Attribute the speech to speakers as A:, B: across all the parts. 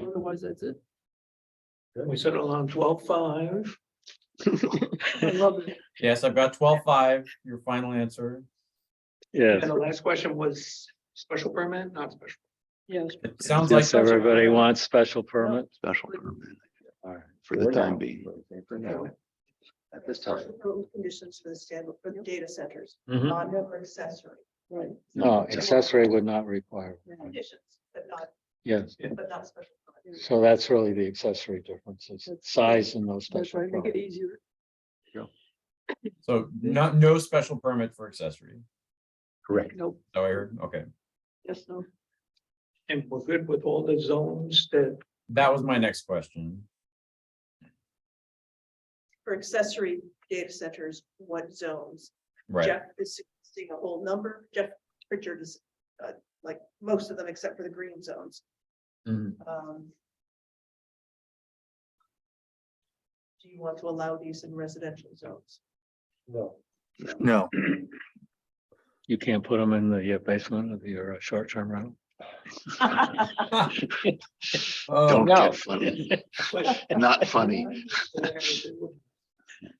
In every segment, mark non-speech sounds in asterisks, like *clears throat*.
A: Otherwise, that's
B: *laughs*
A: it.
C: We settled on twelve five.
A: I love it.
D: Yes, I've got twelve five, your final answer.
C: And
E: Yes,
C: the last question was special permit, not special.
A: Yes.
D: It sounds like.
E: yes, everybody wants special permit.
F: Special permit
E: All right.
F: for the time being.
C: permit.
F: At this
G: Conditions for the stand, for the data centers,
B: Mm-hmm.
D: Mhm.
G: not for accessory
A: Right.
F: Oh,
E: No, accessory would not require,
G: conditions, but not,
E: yes,
G: but not special. permit.
E: so that's really the accessory differences, size and those
A: That's
E: special.
A: right. Make it
E: permit.
A: easier.
D: So not, no special permit for accessory.
F: Correct.
A: Nope.
D: So I heard, okay,
A: Yes, no.
C: And we're good with all the zones that,
D: that was my next question.
G: For accessory data centers, what zones?
D: Right,
G: Jeff is suggesting a whole number, Jeff Pritchard is, uh, like, most of them except for the green zones.
D: Mhm.
B: Mm-hmm.
G: Um, Do you want to allow these in residential
B: *laughs*
G: zones?
F: No.
E: You can't put them in the uh, basement of your uh, short-term rental.
F: Don't
D: oh,
F: get funny.
A: *laughs*
F: Not funny.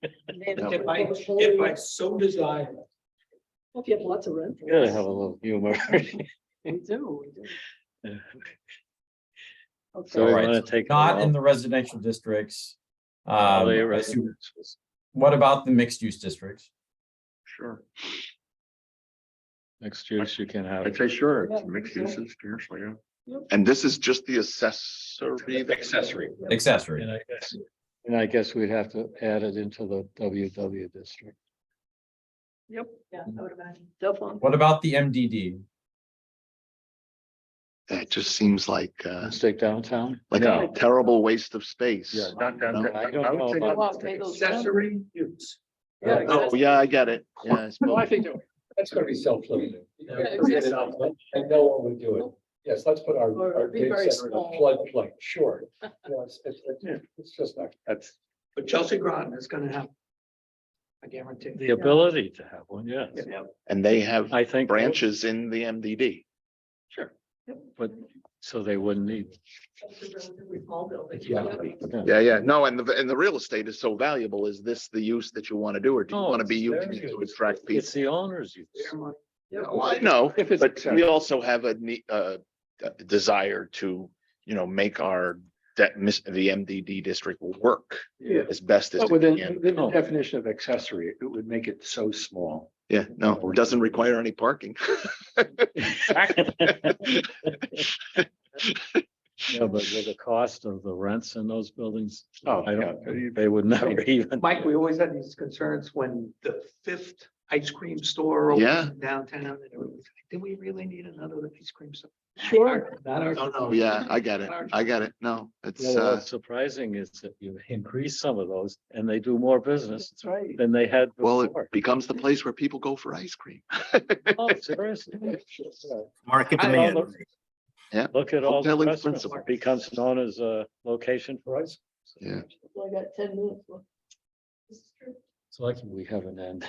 C: if I, if I so desire.
A: Hope you have lots of rent.
E: You gotta have a little
A: *laughs*
E: humor. *laughs*
A: We do, we do.
E: So we
A: Okay,
D: Alright,
E: wanna take. them
D: not
E: all.
D: in the residential districts.
E: All
D: Um,
E: the
D: I
E: rest-
D: assume- what about the mixed use districts?
F: Sure.
E: Next use you can have.
F: I'd say sure,
A: Yeah,
F: it's mixed
A: yeah.
F: uses, seriously, yeah.
A: Yep.
F: And this is just the accessory. Accessory.
D: Accessory,
E: And I guess, and I guess we'd have to add it into the WW district.
A: Yep,
G: Yeah, I would imagine.
A: definitely.
D: what about the MDD?
F: That just seems like, uh,
E: Stick downtown?
F: like a
E: No.
F: terrible waste of space.
E: Yeah, not downtown.
F: No.
E: I don't know
F: would say
E: about-
F: not-
A: Well, pay those rent.
C: Accessory use.
E: Yeah.
F: Oh, yeah, I get *laughs* it. Yeah, I
B: No, I
F: suppose.
B: think that- that's gonna be self-limiting. you know,
A: Yeah,
B: forget it
A: exactly.
B: out, but I know what we're doing. Yes, let's put our,
A: Or
B: our
A: be
B: data
A: very
B: center in a
A: small.
B: floodplain, sure. You know, It's, it's, it's- it's just not, that's,
C: But Chelsea Groton is gonna have. I guarantee.
E: The ability to have one, yes.
C: Yeah.
F: And they have
E: I think.
F: branches in the MDD.
E: But, so they wouldn't need.
G: That's a relatively small building.
B: Yeah.
F: Yeah, yeah. No, and the, and the real estate is so valuable. Is this the use that you want to do or do you
E: No,
F: want to be
E: it's
F: using
E: their
F: it to
E: use.
F: attract people?
E: It's the owner's use.
C: Their money.
F: Well, I know,
E: *laughs* If it's
F: but we *laughs*
E: accessible.
F: also have a ne- uh, a desire to, you know, make our that miss, the MDD district work
B: yeah.
F: as best as
B: But
F: it
B: within,
F: can.
B: within the definition of accessory, it would make it so small.
F: Yeah, no, it doesn't require any parking.
E: Yeah, but with the cost of the rents in those buildings,
B: Oh,
E: I
B: yeah.
E: don't, they would never even.
C: Mike, we always had these concerns when the fifth ice cream store opened
F: Yeah.
C: in downtown. and it was like, Do we really need another ice cream store?
A: Sure.
C: Not our.
F: No, no, yeah, I get it. I get it. No, it's,
E: Yeah,
F: uh,
E: what's surprising is that you increase some of those and they do more business
C: That's right.
E: than they had
F: well, it
E: before.
F: becomes the place where people go for ice cream. *laughs*
E: Oh, seriously.
H: Market
C: I don't
H: demand.
E: Look-
F: Yeah,
E: Look at all the
F: hoteling
E: restaurants,
F: principle.
E: it becomes known as a location for ice.
F: Yeah.
A: Well, I got ten minutes. left.
E: So I can, we have an end.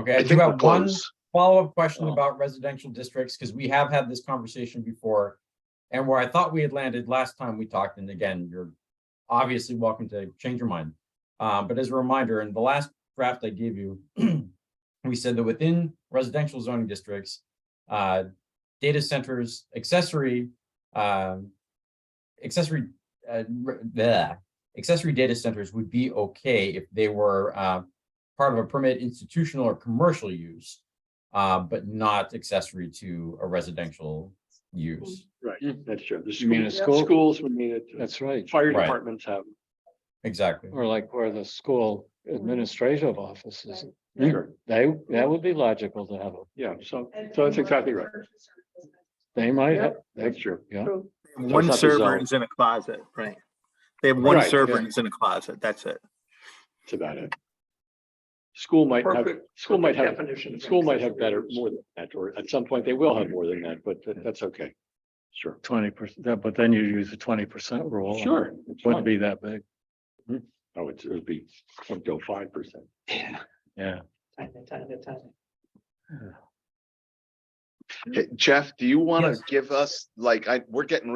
D: Okay,
F: I
D: I do
F: think we're
D: have one
F: close.
D: follow-up question
E: Oh.
D: about residential districts, because we have had this conversation before. And where I thought we had landed last time we talked, and again, you're obviously welcome to change your mind. Uh, but as a reminder, in the last draft I gave you, *clears throat* we said that within residential zoning districts, uh, data centers, accessory, um, accessory, uh, re- bleh, accessory data centers would be okay if they were, uh, part of a permit institutional or commercial use uh, but not accessory to a residential use.
B: Right, that's true. The
E: You mean a
B: school-
E: school?
B: Schools would mean it.
E: That's right.
B: Fire
D: Right.
B: departments have.
D: Exactly.
E: Or like where the school administrative offices,
B: them.
E: Mm.
B: Sure.
E: they, that would be logical to have. a-
B: Yeah, so,
G: And-
B: so that's exactly right.
E: They might, have-
B: That's true.
E: yeah,
A: True.
H: One
B: not the
H: server
B: zone.
H: is in a closet, right? They have one
B: Right,
H: server
B: yeah.
H: and it's in a closet. That's it.
B: That's about it. School might have,
C: Perfect-
B: school might have,
C: Definition. of
B: school might have
C: accessory
B: better,
C: use.
B: more than that, or at some point they will have more than that, but that- that's okay. Sure.
E: twenty percent, but then you use the twenty percent rule. and
B: Sure.
E: it Wouldn't be that big,
B: Oh, it's, it would be up to five percent.
C: Yeah,
E: yeah.
C: time to time to time.
F: Hey, Jeff, do you want
D: Yes.
F: to give us, like, I, we're getting